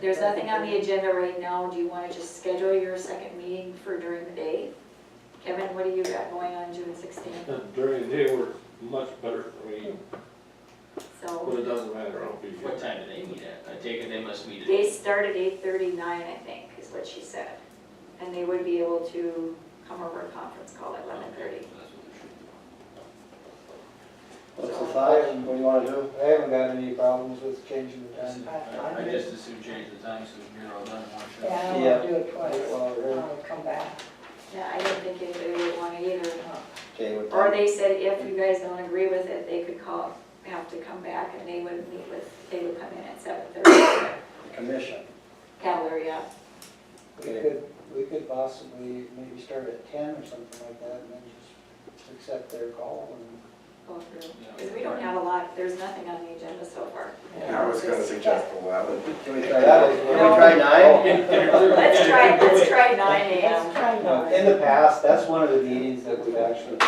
There's nothing on the agenda right now, do you wanna just schedule your second meeting for during the day? Kevin, what do you got going on June sixteenth? And During the day, we're much better, I mean, but So, it doesn't matter, I'll be What here. time do they meet at? I take it they must meet at. they start at eight thirty-nine, I think, is what she said. And they would be able to come over a conference call at eleven thirty. That's what it should What's the size and what do you wanna do? I haven't got any problems with changing the time. be. I I just assume change the time so we're all done in one Yeah, shot. I don't Yeah. wanna do it twice. Well, we're I'll come back. Yeah, I don't think anybody would wanna either. okay with Or that. they said if you guys don't agree with it, they could call, have to come back and they would meet with, they would come in at seven thirty. The commission. Cavalry, yeah. We could, we could possibly maybe start at ten or something like that and then just accept their call and. go through. Yeah. Because we don't have a lot, there's nothing on the agenda so far. I was gonna suggest eleven. Can we try that? Can we try nine? Let's try, let's try nine Let's AM. try No, In nine. the past, that's one of the meetings that we've actually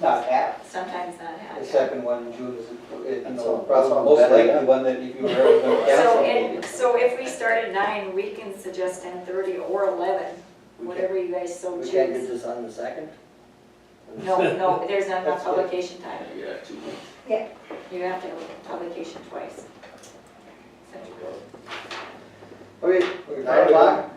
not had. Sometimes not The happening. second one in June is, you That's all- know, that's all probably most better, yeah. likely one that if you were ever gonna So, cancel. and, so if we start at nine, we can suggest ten thirty or eleven, whatever you guys so We can't get choose. this on the second? No, no, there's not enough That's good. publication time. Yeah, you got two weeks. You have to have publication twice. So Okay, Nine nine o'clock?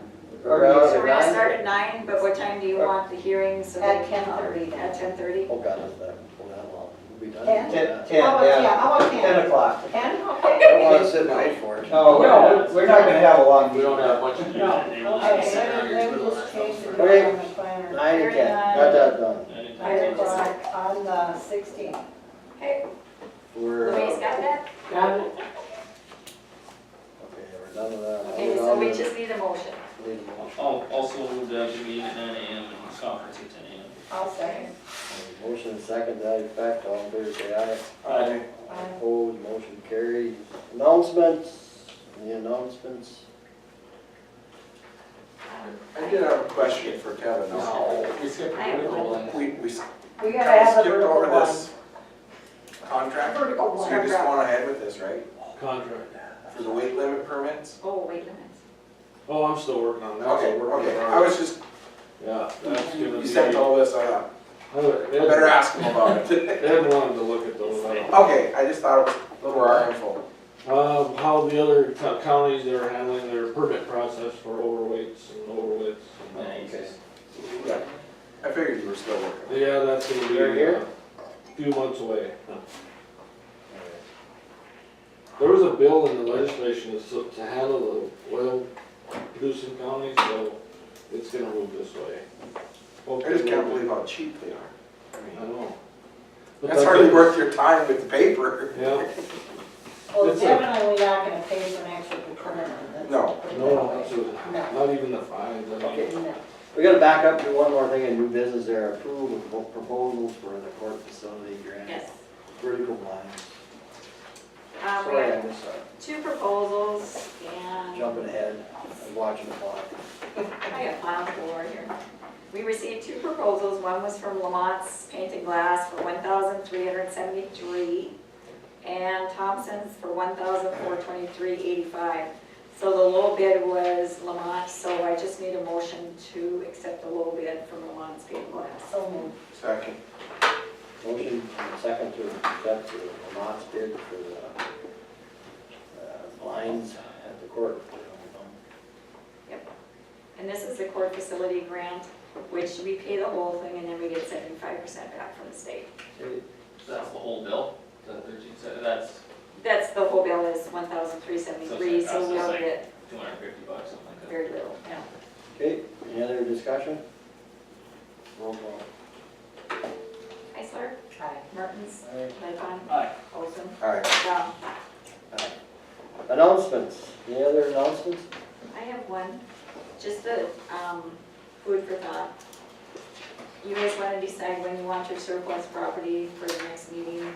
Or Around so we're gonna nine? start at nine, but what time do you want the hearing so At that? 10:30. At ten thirty? Oh, God, is that, well, that long? We'll be done. Ten? Ten, ten, How about, yeah, yeah, how about ten ten? o'clock. Ten, I don't okay. wanna sit and wait for it. No, we're- we're not gonna have a long We meeting. don't have much to do. They will just Okay, sit down then, here then twiddle we their just change the thumbs. date on the planner. Nine and ten, got that done. Nine Nine and ten. o'clock on the sixteenth. Okay, We're, uh, Louise got that? okay, we're done with that. Okay, We're so done we with- just need a motion. Leave it alone. Al- Oh, Also, the meeting at nine AM and conference at ten AM. I'll second. Motion and second, that effect, all in favor, say aye. Aye. Aye. Opposed, motion carried. Announcements, any announcements? I did have a question for Kevin. No, we skipped I have political one. and- We, we s- We gotta kinda have skipped the vertical over one. this contract, so Vertical we one. just went ahead with this, right? Contract. For the weight limit permits? Oh, wait a minute. Oh, I'm still working on that. so Okay, we're working okay, on I it. was just, Yeah, that's gonna you be. sent all this, I thought, I would- I better Ed ask him about it. Ed wanted to look at those. I don't- Okay, I just thought it was a little more info. Um, how the other co- counties are handling their permit process for overweights and overweights. and- Nice. Yeah, I figured you were still working. Yeah, that's gonna be. They're here? a Few months away. There was a bill in the legislation to s- to handle the oil producing counties, so it's gonna move this way. I just can't believe how cheap they are. I I mean, know. But That's hardly worth your time with the paper. Yeah, Well, That's it. definitely not gonna pay for an actual permit. That's- No. no, it's a- No. not even the fines, I mean. Okay. No. We gotta back up to one more thing in new business there, approval of proposals for the court facility grant. Yes. Uh, Vertical lines. Um, we Sorry, have I missed that. two proposals and. Jumping ahead, I'm watching the clock. I got plowed floor here. We received two proposals, one was from Lamont's Painted Glass for one thousand three hundred seventy-three, and Thompson's for one thousand four twenty-three eighty-five. So the low bid was Lamont, so I just need a motion to accept the low bid from Lamont's Painted Glass. So moved. Second. Motion and second to accept the Lamont's bid for the uh, blinds at the court. And this is the court facility grant, which we pay the whole thing and then we get seventy-five percent back from the state. That's the whole bill? Is that thirteen, so that's That's, the whole bill is one thousand three seventy-three, So it's like- so we so it's don't like- get two hundred and fifty bucks, something like that. very little, yeah. Okay, any other discussion? Roll call. Heisler, Aye. Mertens, Aye. Lightfon, Aye. Olson, All right. Brown. Announcements, any other announcements? I have one, just the, um, food for thought. You guys wanna decide when you want your surplus property for the next meeting?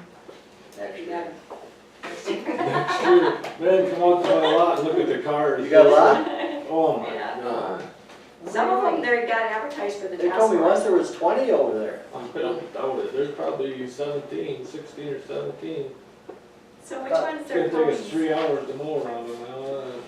Next You year. got- next year. Sure, man, come out to my lot and look at the cars. You got a lot? Oh my Yeah. god. Some of them, they got advertised for the They task told me once force. there was twenty over there. I don't doubt it, there's probably 17, 16 or seventeen. So which ones It's are gonna going? take us three hours to mow around them, uh,